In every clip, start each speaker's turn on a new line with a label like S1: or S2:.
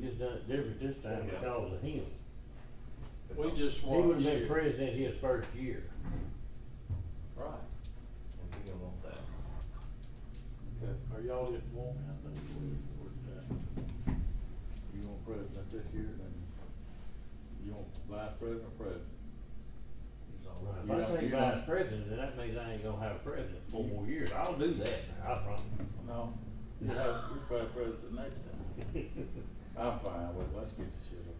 S1: just done it different this time
S2: Yeah.
S1: because of him.
S3: We just
S1: He
S3: want
S1: would've
S3: you.
S1: been president his first year.
S3: Right.
S2: And we don't want that.
S4: Okay.
S5: Or y'all didn't want me, I think we were, uh, you want president this year, then you want vice president or president?
S2: He's all
S1: If
S2: right.
S1: I
S5: don't-
S1: take
S5: you
S1: vice
S5: don't-
S1: president, then that means I ain't gonna have a president for more years. I'll do that, I promise.
S5: No, you have, you're probably president next time. I'm fine with it, let's get this shit over.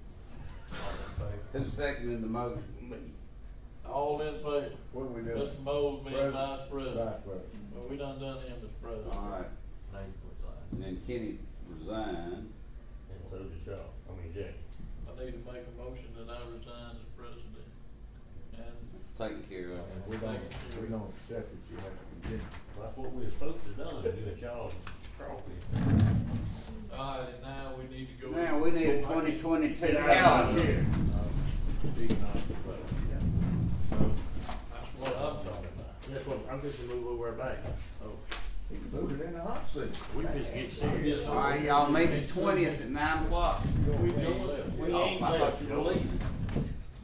S2: All in favor?
S6: Who seconded the motion?
S3: All in favor?
S4: What are we doing?
S3: Mr. Mold being
S4: President.
S3: vice president.
S4: Vice president.
S3: Well, we done done him as president.
S6: Alright,
S2: Nathan resigns.
S6: and then Kenny resigned.
S1: And so did y'all, I mean, Jay.
S3: I need to make a motion that I resign as president. And
S6: It's taken care of.
S2: And we don't,
S4: We don't accept it, you have to continue.
S1: That's what we were supposed to done, do it y'all crawfish.
S3: all right, and now we need to go.
S6: Now, we need a twenty twenty-two
S1: Get out of my
S6: calendar.
S1: chair.
S3: That's what I'm talking about.
S1: That's what, I'm just gonna move over back. Oh,
S4: Move it in the hot seat.
S1: we just get serious.
S6: Alright, y'all meet the twentieth at nine o'clock.
S3: We ain't left.
S1: We
S6: Oh,
S1: ain't
S6: I thought
S1: left,
S6: you
S1: Joey.
S6: believed.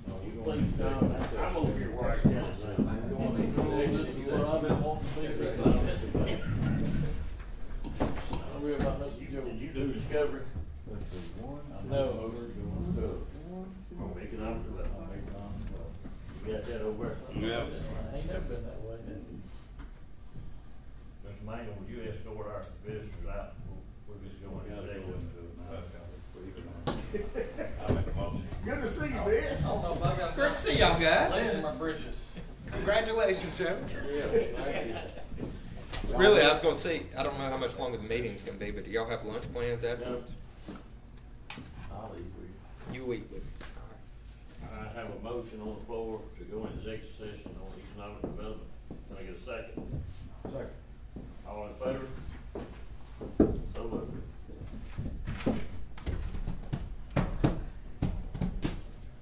S5: No, we
S1: You
S5: don't
S1: please,
S5: need to
S1: Tom, I'm over here watching this now.
S5: do
S3: Well,
S5: that.
S3: This is what I've been wanting to see. since I've been to bed. I'm worried about Mr. Joe.
S1: Did you do discovery?
S4: Let's see, one,
S5: I
S3: No.
S5: know, over, going to it.
S4: one, two.
S1: On economic development.
S5: Make it on.
S1: You got that over there?
S6: Yeah.
S3: Ain't never been that way, has it?
S1: Mr. Mangle, would you escort our visitors out? We're just going to
S5: Gotta
S1: jail.
S5: go into it now.
S2: I make a motion.
S4: Good to see you, Ben.
S3: I don't know if I got.
S7: Great to see y'all guys.
S3: Land in my britches.
S7: Congratulations, Joe.
S3: Yeah, thank you.
S7: Really, I was going to say, I don't know how much longer the meeting's going to be, but do y'all have lunch plans afterwards?
S5: I'll eat with you.
S7: You eat with me.
S1: I have a motion on the floor to go into executive session on economic development. Can I get a second?